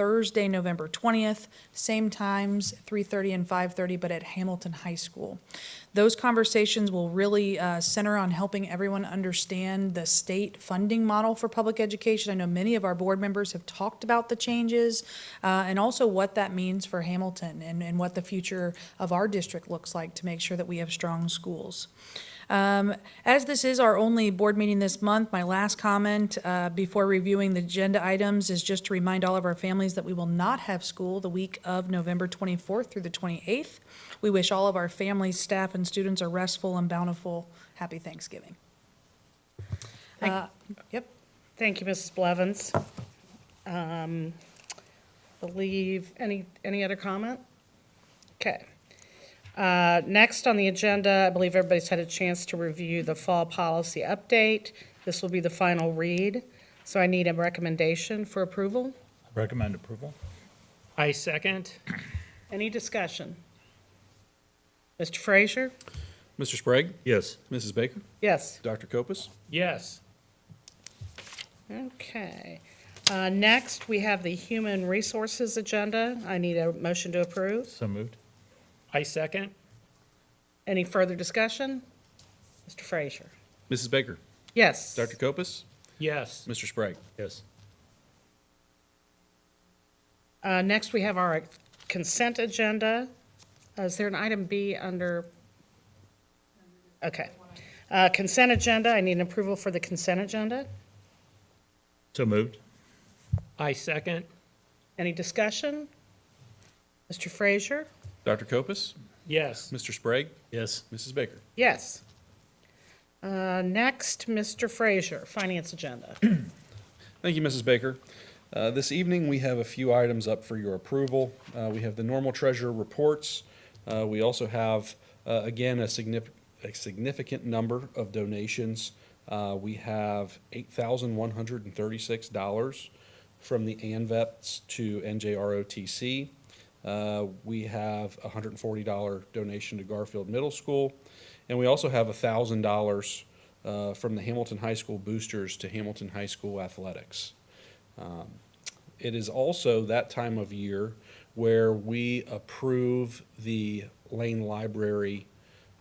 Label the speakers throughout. Speaker 1: Thursday, November 20th, same times, 3:30 and 5:30, but at Hamilton High School. Those conversations will really uh, center on helping everyone understand the state funding model for public education. I know many of our board members have talked about the changes uh, and also what that means for Hamilton and and what the future of our district looks like to make sure that we have strong schools. Um, As this is our only board meeting this month, my last comment uh, before reviewing the agenda items is just to remind all of our families that we will not have school the week of November 24th through the 28th. We wish all of our families, staff, and students a restful and bountiful, happy Thanksgiving.
Speaker 2: Thank-
Speaker 1: Uh, Yep.
Speaker 2: Thank you, Mrs. Blevins. Um, Believe, any, any other comment? Okay. Uh, Next on the agenda, I believe everybody's had a chance to review the fall policy update. This will be the final read, so I need a recommendation for approval.
Speaker 3: Recommend approval.
Speaker 4: I second.
Speaker 2: Any discussion? Mr. Frazier?
Speaker 5: Mr. Sprague?
Speaker 3: Yes.
Speaker 5: Mrs. Baker?
Speaker 2: Yes.
Speaker 5: Dr. Copus?
Speaker 4: Yes.
Speaker 2: Okay. Uh, Next, we have the Human Resources Agenda. I need a motion to approve.
Speaker 3: So moved.
Speaker 4: I second.
Speaker 2: Any further discussion? Mr. Frazier?
Speaker 5: Mrs. Baker?
Speaker 2: Yes.
Speaker 5: Dr. Copus?
Speaker 4: Yes.
Speaker 5: Mr. Sprague?
Speaker 3: Yes.
Speaker 2: Uh, Next, we have our consent agenda. Uh, Is there an item B under? Okay. Uh, Consent agenda, I need an approval for the consent agenda.
Speaker 3: So moved.
Speaker 4: I second.
Speaker 2: Any discussion? Mr. Frazier?
Speaker 5: Dr. Copus?
Speaker 4: Yes.
Speaker 5: Mr. Sprague?
Speaker 3: Yes.
Speaker 5: Mrs. Baker?
Speaker 2: Yes. Uh, Next, Mr. Frazier, finance agenda.
Speaker 5: Thank you, Mrs. Baker. Uh, This evening, we have a few items up for your approval. Uh, We have the normal treasurer reports. Uh, We also have, uh, again, a significant, a significant number of donations. Uh, We have $8,136 from the ANVETS E to NJROTC. Uh, We have a $140 donation to Garfield Middle School, and we also have $1,000 uh, from the Hamilton High School boosters to Hamilton High School athletics. Um, It is also that time of year where we approve the Lane Library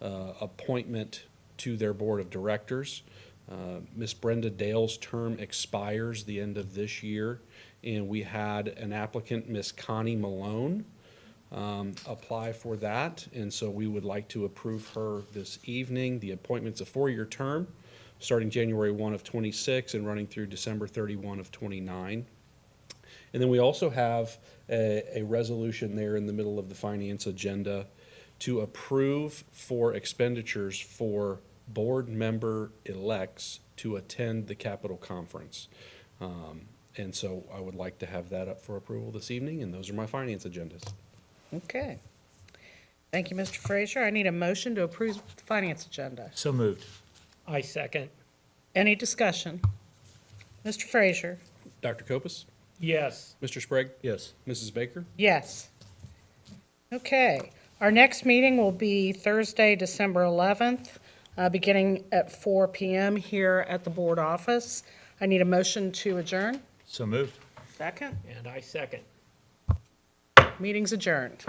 Speaker 5: uh, appointment to their Board of Directors. Uh, Miss Brenda Dale's term expires the end of this year, and we had an applicant, Miss Connie Malone, um, apply for that, and so we would like to approve her this evening. The appointment's a four-year term, starting January 1 of '26 and running through December 31 of '29. And then we also have a, a resolution there in the middle of the finance agenda to approve for expenditures for board member elects to attend the Capitol Conference. Um, And so I would like to have that up for approval this evening, and those are my finance agendas.
Speaker 2: Okay. Thank you, Mr. Frazier. I need a motion to approve the finance agenda.
Speaker 3: So moved.
Speaker 4: I second.
Speaker 2: Any discussion? Mr. Frazier?
Speaker 5: Dr. Copus?
Speaker 4: Yes.
Speaker 5: Mr. Sprague?
Speaker 3: Yes.
Speaker 5: Mrs. Baker?
Speaker 2: Yes. Okay. Our next meeting will be Thursday, December 11th, uh, beginning at 4 PM here at the board office. I need a motion to adjourn.
Speaker 3: So moved.
Speaker 2: Second.
Speaker 4: And I second.
Speaker 2: Meeting's adjourned.